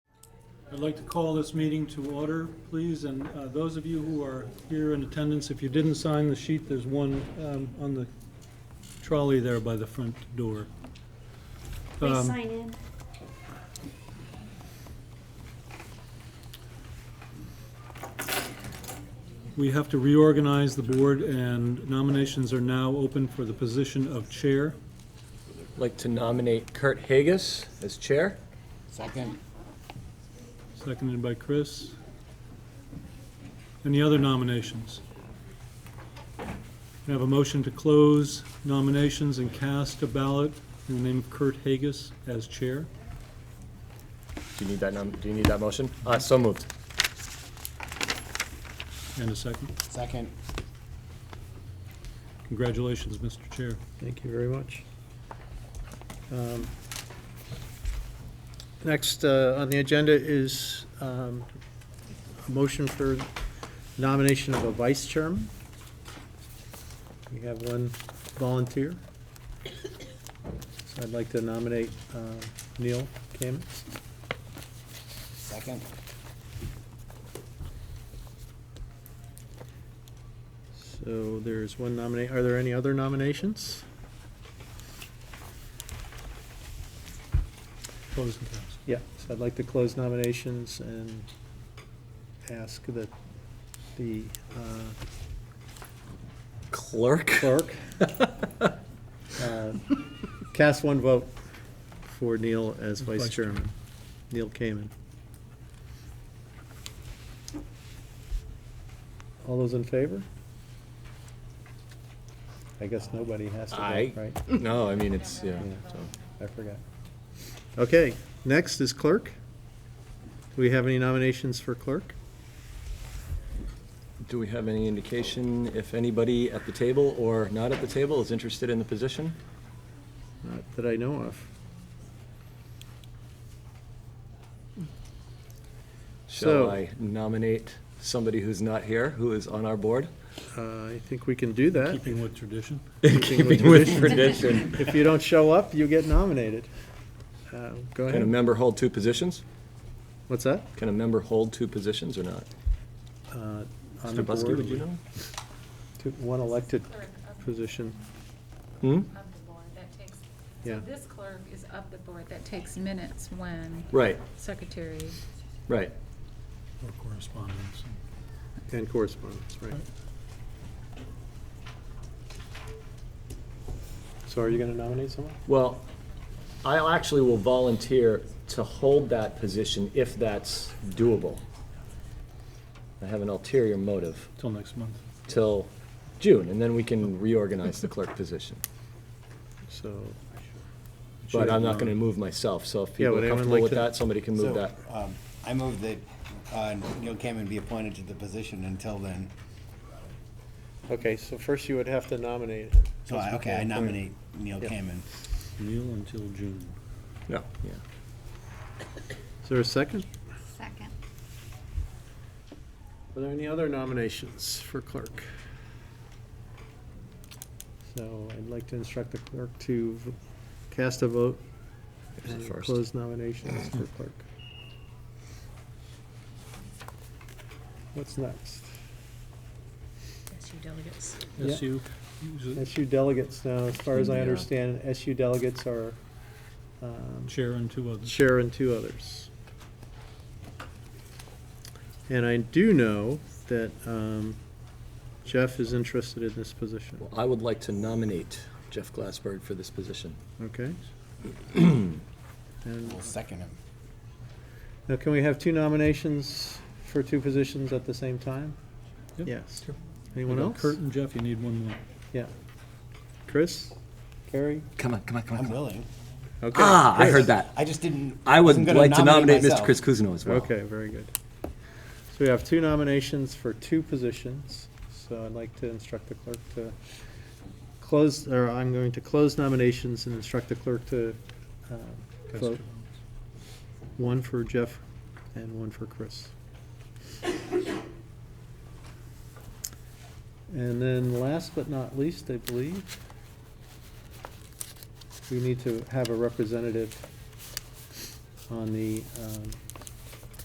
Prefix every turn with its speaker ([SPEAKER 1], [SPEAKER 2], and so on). [SPEAKER 1] I'd like to call this meeting to order, please, and uh, those of you who are here in attendance, if you didn't sign the sheet, there's one um, on the trolley there by the front door.
[SPEAKER 2] Please
[SPEAKER 1] Um,
[SPEAKER 2] sign in.
[SPEAKER 1] We have to reorganize the board, and nominations are now open for the position of chair.
[SPEAKER 3] like to nominate Kurt Hagus as chair.
[SPEAKER 4] Second.
[SPEAKER 1] Seconded by Chris. Any other nominations? We have a motion to close nominations and cast a ballot in the name of Kurt Hagus as chair.
[SPEAKER 3] Do you need that nom, do you need that motion? Uh, so moved.
[SPEAKER 1] And a second.
[SPEAKER 4] Second.
[SPEAKER 1] Congratulations, Mr. Chair.
[SPEAKER 5] Thank you very much. Um, Next uh, on the agenda is um, a motion for nomination of a vice chairman. We have one volunteer. So I'd like to nominate uh, Neil Kamens.
[SPEAKER 4] Second.
[SPEAKER 5] So there's one nominee. Are there any other nominations?
[SPEAKER 1] Close and cast.
[SPEAKER 5] Yeah, so I'd like to close nominations and ask that the uh,
[SPEAKER 3] Clerk.
[SPEAKER 5] clerk uh, cast one vote for Neil as vice
[SPEAKER 1] Vice
[SPEAKER 5] chairman. Neil Kamen. All those in favor? I guess nobody has to
[SPEAKER 3] Aye.
[SPEAKER 5] vote, right?
[SPEAKER 3] No, I mean, it's, yeah, so.
[SPEAKER 5] I forgot. Okay, next is clerk. Do we have any nominations for clerk?
[SPEAKER 3] Do we have any indication if anybody at the table or not at the table is interested in the position?
[SPEAKER 5] Not that I know of.
[SPEAKER 3] Shall
[SPEAKER 5] So-
[SPEAKER 3] I nominate somebody who's not here, who is on our board?
[SPEAKER 5] Uh, I think we can do that.
[SPEAKER 1] Keeping with tradition.
[SPEAKER 3] Keeping with tradition.
[SPEAKER 5] If you don't show up, you get nominated. Uh,
[SPEAKER 3] Can
[SPEAKER 5] Go
[SPEAKER 3] a
[SPEAKER 5] ahead.
[SPEAKER 3] member hold two positions?
[SPEAKER 5] What's that?
[SPEAKER 3] Can a member hold two positions or not?
[SPEAKER 5] Uh, On
[SPEAKER 3] Mr.
[SPEAKER 5] the
[SPEAKER 3] Buskey,
[SPEAKER 5] board,
[SPEAKER 3] would you know?
[SPEAKER 5] to- one elected position.
[SPEAKER 3] Hmm?
[SPEAKER 6] Of the board, that takes,
[SPEAKER 5] Yeah.
[SPEAKER 6] so this clerk is of the board, that takes minutes when
[SPEAKER 3] Right,
[SPEAKER 6] secretary.
[SPEAKER 3] right.
[SPEAKER 1] Or correspondence.
[SPEAKER 5] And correspondence, right. So are you going to nominate someone?
[SPEAKER 3] Well, I actually will volunteer to hold that position if that's doable. I have an ulterior motive
[SPEAKER 1] Till next month.
[SPEAKER 3] till June, and then we can reorganize the clerk position.
[SPEAKER 5] So,
[SPEAKER 3] But I'm not gonna move myself, so if
[SPEAKER 5] Yeah,
[SPEAKER 3] people
[SPEAKER 5] would
[SPEAKER 3] are
[SPEAKER 5] anyone
[SPEAKER 3] comfortable
[SPEAKER 5] like
[SPEAKER 3] with
[SPEAKER 5] to-
[SPEAKER 3] that, somebody can move
[SPEAKER 4] So,
[SPEAKER 3] that.
[SPEAKER 4] um, I move that uh, Neil Cameron be appointed to the position until then.
[SPEAKER 5] okay, so first you would have to nominate.
[SPEAKER 4] So, I- okay, I nominate Neil
[SPEAKER 5] Yeah.
[SPEAKER 4] Cameron.
[SPEAKER 1] Neil until June.
[SPEAKER 3] No, yeah.
[SPEAKER 5] Is there a second?
[SPEAKER 2] Second.
[SPEAKER 5] Are there any other nominations for clerk? So I'd like to instruct the clerk to v- cast a vote
[SPEAKER 3] There's the
[SPEAKER 5] and
[SPEAKER 3] first.
[SPEAKER 5] close nominations for
[SPEAKER 1] Mm-hmm.
[SPEAKER 5] clerk. What's next?
[SPEAKER 6] That's your delegates.
[SPEAKER 5] Yeah.
[SPEAKER 1] SU. Use it.
[SPEAKER 5] SU delegates now, as far as I
[SPEAKER 3] Yeah.
[SPEAKER 5] understand, SU delegates are um,
[SPEAKER 1] Chair and two others.
[SPEAKER 5] chair and two others. And I do know that um, Jeff is interested in this position,
[SPEAKER 3] Well, I would like to nominate Jeff Glassberg for this position.
[SPEAKER 5] okay? And
[SPEAKER 4] We'll second him.
[SPEAKER 5] Now, can we have two nominations for two positions at the same time?
[SPEAKER 1] Yep.
[SPEAKER 5] Yes.
[SPEAKER 1] Sure.
[SPEAKER 5] Anyone
[SPEAKER 1] We got
[SPEAKER 5] else?
[SPEAKER 1] Kurt and Jeff, you need one more.
[SPEAKER 5] Yeah. Chris? Carrie?
[SPEAKER 3] Come on, come on, come
[SPEAKER 4] I'm willing.
[SPEAKER 5] Okay.
[SPEAKER 3] Ah, I heard
[SPEAKER 4] Chris,
[SPEAKER 3] that.
[SPEAKER 4] I just didn't.
[SPEAKER 3] I would
[SPEAKER 4] wasn't gonna
[SPEAKER 3] like to nominate Mr.
[SPEAKER 4] myself.
[SPEAKER 3] Chris Kuzno as well.
[SPEAKER 5] Okay, very good. So we have two nominations for two positions, so I'd like to instruct the clerk to close, or I'm going to close nominations and instruct the clerk to uh, vote one for Jeff and one for Chris. And then last but not least, I believe, we need to have a representative on the um,